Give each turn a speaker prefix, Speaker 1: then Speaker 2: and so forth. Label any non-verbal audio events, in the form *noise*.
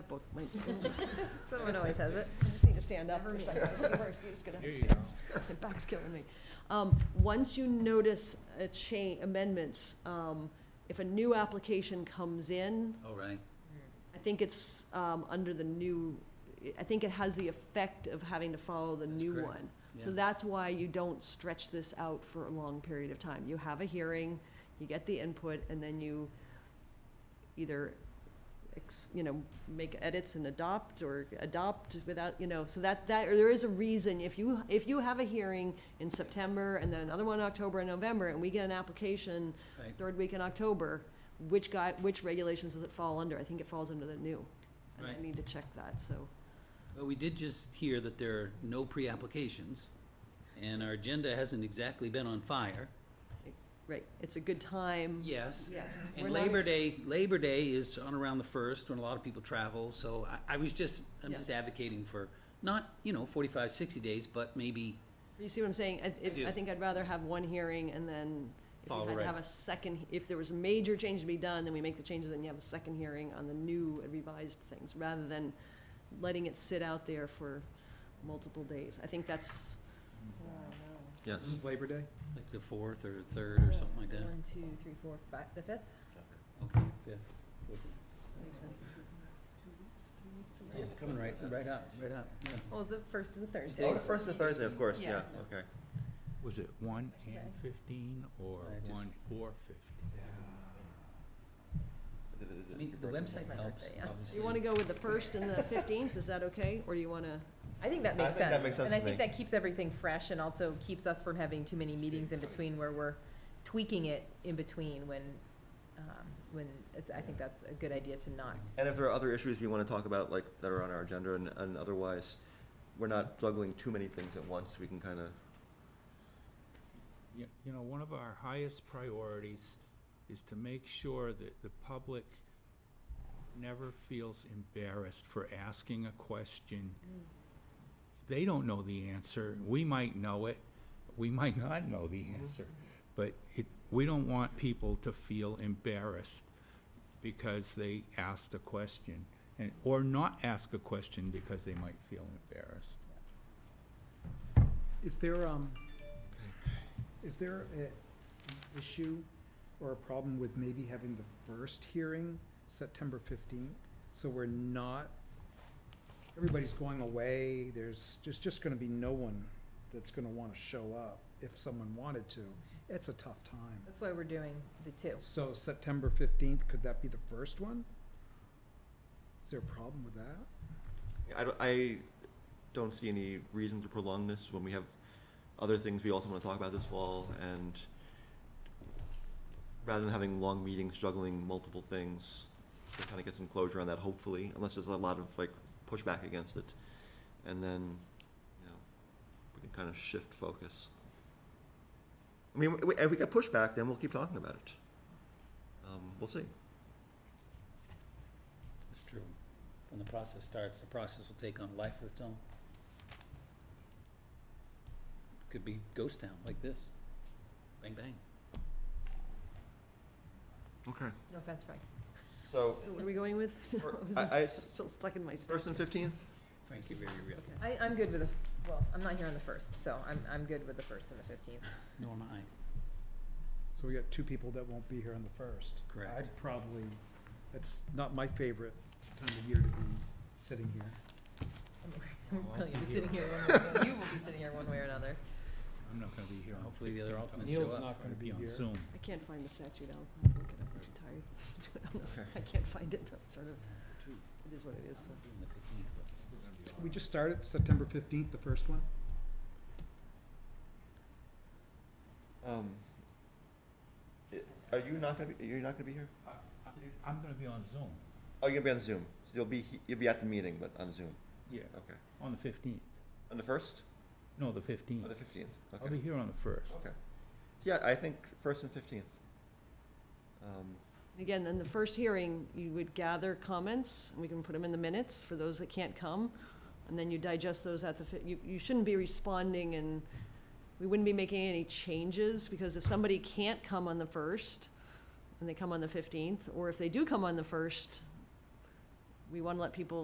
Speaker 1: book, my, *laughs*
Speaker 2: Someone always has it.
Speaker 1: I just need to stand up
Speaker 2: Never
Speaker 1: for a
Speaker 2: me.
Speaker 1: second. I was like, "Where are you just gonna
Speaker 3: There
Speaker 1: have
Speaker 3: you
Speaker 1: steps. My back's killing me. Um, once you notice a cha- amendments, um, if a new application comes in,
Speaker 3: Oh, right.
Speaker 1: I think it's, um, under the new, I think it has the effect of having to follow the
Speaker 3: That's
Speaker 1: new
Speaker 3: correct.
Speaker 1: one.
Speaker 3: Yeah.
Speaker 1: So that's why you don't stretch this out for a long period of time. You have a hearing, you get the input, and then you either, ex- you know, make edits and adopt or adopt without, you know, so that, that, or there is a reason, if you, if you have a hearing in September and then another one in October and November, and we get an application
Speaker 3: Right.
Speaker 1: third week in October, which guy, which regulations does it fall under? I think it falls under the new. And I
Speaker 3: Right.
Speaker 1: need to check that, so.
Speaker 3: Well, we did just hear that there are no pre-applications, and our agenda hasn't exactly been on fire.
Speaker 1: Right, it's a good time.
Speaker 3: Yes.
Speaker 1: Yeah. We're
Speaker 3: And
Speaker 1: not
Speaker 3: Labor
Speaker 1: ex-
Speaker 3: Day, Labor Day is on around the first, when a lot of people travel, so I, I was just, I'm
Speaker 1: Yeah.
Speaker 3: just advocating for, not, you know, 45, 60 days, but maybe,
Speaker 1: You see what I'm saying? I, it-
Speaker 3: do.
Speaker 1: I think I'd rather have one hearing and then if
Speaker 3: Follow
Speaker 1: you had to
Speaker 3: right.
Speaker 1: have a second, if there was a major change to be done, then we make the changes, then you have a second hearing on the new and revised things, rather than letting it sit out there for multiple days. I think that's,
Speaker 4: Yes. Labor Day?
Speaker 3: like, the fourth or third or something like that.
Speaker 2: One, two, three, four, five, the fifth?
Speaker 3: Okay, fifth.
Speaker 2: Makes sense.
Speaker 3: It's coming right, right up, right up, yeah.
Speaker 2: Well, the first is a Thursday.
Speaker 4: Oh, the first is Thursday, of course, yeah,
Speaker 2: Yeah.
Speaker 4: okay.
Speaker 5: Was it one and
Speaker 2: Okay.
Speaker 5: fifteen or
Speaker 3: I just-
Speaker 5: one or fifteen?
Speaker 3: I mean, the
Speaker 2: That's
Speaker 3: website
Speaker 2: my
Speaker 3: helps,
Speaker 2: birthday, yeah.
Speaker 3: obviously.
Speaker 1: you wanna go with the first and the fifteenth, is that okay? Or do you wanna,
Speaker 2: I think that
Speaker 4: I
Speaker 2: makes
Speaker 4: think that
Speaker 2: sense.
Speaker 4: makes sense
Speaker 2: And I
Speaker 4: to
Speaker 2: think
Speaker 4: me.
Speaker 2: that keeps everything fresh and also keeps us from having too many meetings in between where we're tweaking it in between when, um, when, it's, I think that's a good idea to not.
Speaker 4: And if there are other issues we want to talk about, like, that are on our agenda and, and otherwise, we're not juggling too many things at once, we can kind of,
Speaker 5: You, you know, one of our highest priorities is to make sure that the public never feels embarrassed for asking a question. They don't know the answer. We might know it. We might not know the answer. But it, we don't want people to feel embarrassed because they asked a question and, or not ask a question because they might feel embarrassed.
Speaker 6: Is there, um, is there a an issue or a problem with maybe having the first hearing September fifteenth? So we're not, everybody's going away, there's, there's just gonna be no one that's gonna wanna show up if someone wanted to. It's a tough time.
Speaker 2: That's why we're doing the two.
Speaker 6: So September fifteenth, could that be the first one? Is there a problem with that?
Speaker 4: I don't, I don't see any reason to prolong this when we have other things we also want to talk about this fall, and rather than having long meetings juggling multiple things, to kind of get some closure on that, hopefully, unless there's a lot of, like, pushback against it. And then, you know, we can kind of shift focus. I mean, w- if we get pushback, then we'll keep talking about it. Um, we'll see.
Speaker 3: It's true. When the process starts, the process will take on life of its own. Could be ghost town like this. Bang, bang.
Speaker 4: Okay.
Speaker 2: No offense, Frank.
Speaker 4: So,
Speaker 1: what are we going with? *laughs*
Speaker 4: For-
Speaker 1: I was
Speaker 4: I- I-
Speaker 1: Still stuck in my stuff.
Speaker 4: first and fifteenth?
Speaker 3: Frank, you're very real.
Speaker 1: Okay.
Speaker 2: I, I'm good with the, f- well, I'm not here on the first, so I'm, I'm good with the first and the fifteenth.
Speaker 3: Nor am I.
Speaker 6: So we got two people that won't be here on the first.
Speaker 3: Correct.
Speaker 6: I'd probably, that's not my favorite time of year to be sitting here.
Speaker 2: *laughs* I'm
Speaker 5: I'll
Speaker 2: really
Speaker 5: be
Speaker 2: gonna be
Speaker 5: here.
Speaker 2: sitting here one way, or- you will be sitting here one way or another.
Speaker 5: I'm not gonna be here on
Speaker 3: Hopefully the other
Speaker 5: 15th.
Speaker 3: alternates
Speaker 5: I'll
Speaker 6: Neil's
Speaker 3: show up.
Speaker 6: not gonna be
Speaker 5: on
Speaker 6: here.
Speaker 5: Zoom.
Speaker 1: I can't find the statute, I'll, I'll look it up, I'm too tired. *laughs* to do it on the- I can't find it, I'm sort of, it is what it is, so.
Speaker 3: On the 15th, but-
Speaker 6: We just started September fifteenth, the first one.
Speaker 4: Um, i- are you not gonna be? You're not gonna be here?
Speaker 5: I'm gonna be on Zoom,
Speaker 4: Oh, you're gonna be on Zoom. So you'll be he- you'll be at the meeting, but on Zoom.
Speaker 5: yeah,
Speaker 4: Okay.
Speaker 5: on the fifteenth,
Speaker 4: On the first
Speaker 5: no, the fifteenth.
Speaker 4: or Oh, the fifteenth. Okay.
Speaker 5: I'll be here on the first.
Speaker 4: Okay. Yeah, I think first and fifteenth. Um,
Speaker 1: Again, then the first hearing, you would gather comments, and we can put them in the minutes for those that can't come, and then you digest those at the, fi- you, you shouldn't be responding and we wouldn't be making any changes, because if somebody can't come on the first, and they come on the fifteenth, or if they do come on the first, we want to let people